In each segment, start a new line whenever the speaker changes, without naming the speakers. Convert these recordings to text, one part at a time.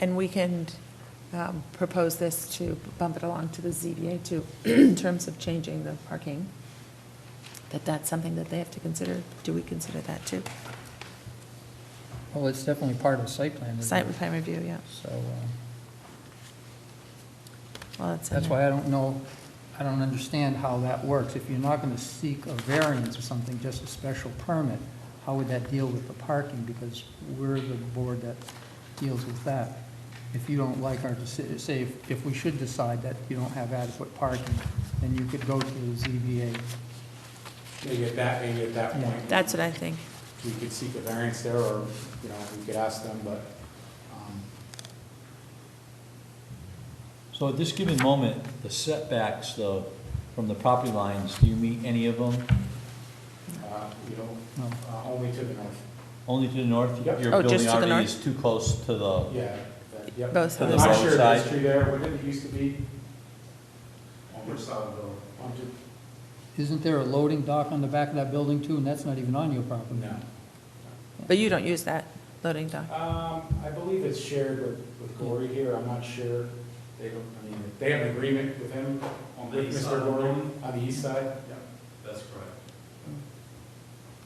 And we can um, propose this to bump it along to the ZBA too, in terms of changing the parking. That that's something that they have to consider. Do we consider that too?
Well, it's definitely part of the site plan. review.
Site plan review, yeah.
So uh,
Well, that's. in
that's
there.
why I don't know, I don't understand how that works. If you're not going to seek a variance or something, just a special permit, how would that deal with the parking? Because we're the board that deals with that. If you don't like our, deci- say, if- if we should decide that you don't have adequate parking, then you could go to the ZBA.
Maybe at that, maybe at that point.
That's what I think.
We could seek a variance there, or, you know, we could ask them, but, um,
So at this given moment, the setbacks, though, from the property lines, do you meet any of them?
uh, you know,
No.
uh, only to the north.
Only to the north?
Yep.
Oh,
Your
just
building
to the
already
north?
is too close to the,
Yeah, that- yep.
Both
I'm
sides.
not sure if
Roadside.
history there, what did it used to be? Over Somerville.
Isn't there a loading dock on the back of that building too, and that's not even on your property?
No.
But you don't use that loading dock.
Um, I believe it's shared with, with Gory here, I'm not sure. They don't, I mean, they have an agreement with him,
On the
with
east
Mr.
side.
Gory, on the east side.
That's correct.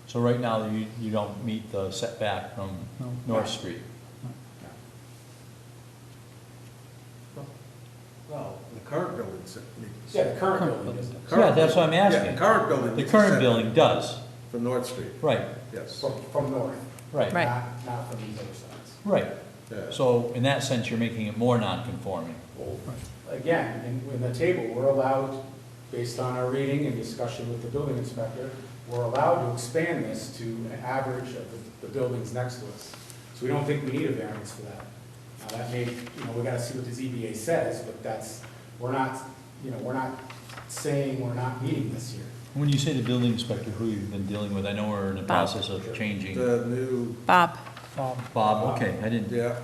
so right now, you, you don't meet the setback from
No.
North Street.
Well, the current building's.
Yeah, the current
Current
building
building.
is,
Yeah, that's what I'm
Yeah, the
asking.
current building.
The
is
current
set
building does,
From North Street,
right,
yes.
from, from north,
right,
Right.
not, not from these other sides.
right.
Yeah.
So in that sense, you're making it more non-conforming.
Well, Again, in, in the table, we're allowed, based on our reading and discussion with the building inspector, we're allowed to expand this to an average of the, the buildings next to us. So we don't think we need a variance for that. Now, that may, you know, we gotta see what the ZBA says, but that's, we're not, you know, we're not saying we're not meeting this year.
When you say the building inspector, who you've been dealing with, I know we're in the
Bob.
process of changing.
The new,
Bob,
Bob,
Bob, okay, I didn't,
yeah,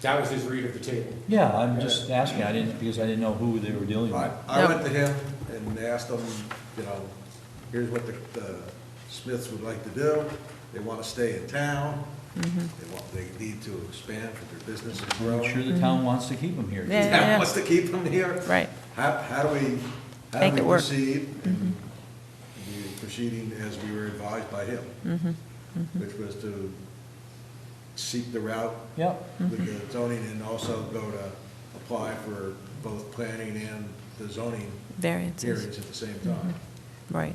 That was his read of the table.
yeah, I'm just asking, I didn't, because I didn't know who they were dealing
I,
with.
I
No.
went to him and asked him, you know, here's what the, the Smiths would like to do. They want to stay in town.
Mm-hmm.
They want, they need to expand for their business is
I'm sure
growing.
Mm-hmm.
the town wants to keep them here.
Yeah, yeah, yeah.
Town wants to keep them here.
right.
How, how do we, how
Make
do
it
we
work. Mm-hmm.
proceed? And we were Proceeding as we were advised by him,
Mm-hmm.
which was to seek the route
Yep.
with
Mm-hmm.
the zoning and also go to apply for both planning and the zoning
Variances,
hearings at the same
Mm-hmm.
time.
right.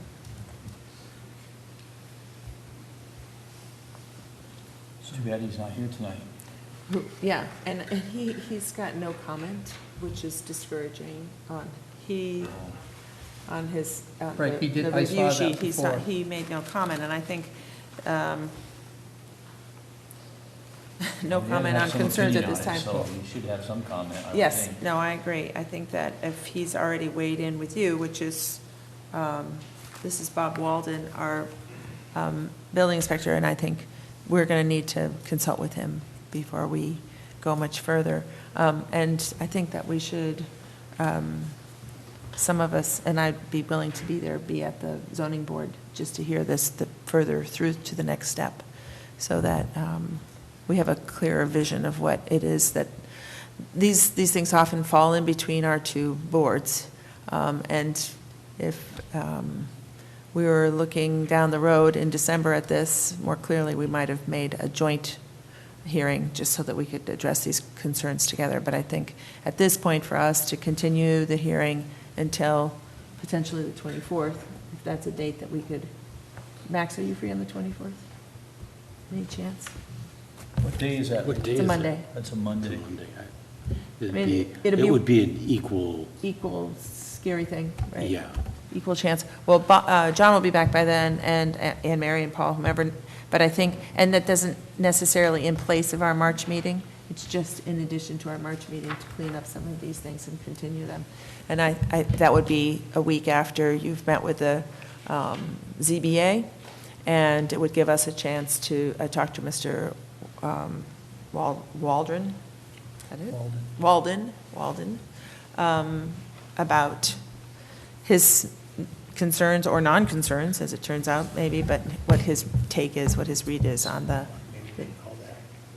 It's too bad he's not here tonight.
Yeah, and, and he, he's got no comment, which is discouraging on, he, on his, uh, the
Right, he did-
the
I saw
review
that
sheet, he's not,
before.
he made no comment, and I think, um,
No
He
comment
doesn't have
on
some
concerns at
opinion
this
on it,
time.
So he should have some comment, I would
yes,
think.
no, I agree. I think that if he's already weighed in with you, which is, um, this is Bob Walden, our
um, building inspector, and I think we're going to need to consult with him before we go much further. Um, And I think that we should, um, some of us, and I'd be willing to be there, be at the zoning board just to hear this the- further through to the next step, so that um, we have a clearer vision of what it is that, these, these things often fall in between our two boards. Um, And if um, we were looking down the road in December at this, more clearly, we might have made a joint hearing, just so that we could address these concerns together. But I think at this point, for us to continue the hearing until potentially the 24th, if that's a date that we could, Max, are you free on the 24th? Any chance?
What day is that?
What day
It's
is
a
it?
Monday.
That's a Monday.
It's a Monday. I-
I
It'd
mean,
be,
it'd be-
it would be an equal,
Equal scary thing, right?
yeah.
equal chance. Well, Bo- uh, John will be back by then, and A- Anne Mary and Paul, whomever, but I think, and that doesn't necessarily in place of our March meeting, it's just in addition to our March meeting to clean up some of these things and continue them. And I, I- that would be a week after you've met with the um, ZBA, and it would give us a chance to uh, talk to Mr. um, Wal- Waldron, is that it?
Walden.
Walden, Walden, um, about his concerns or non-concerns, as it turns out, maybe, but what his take is, what his read is on the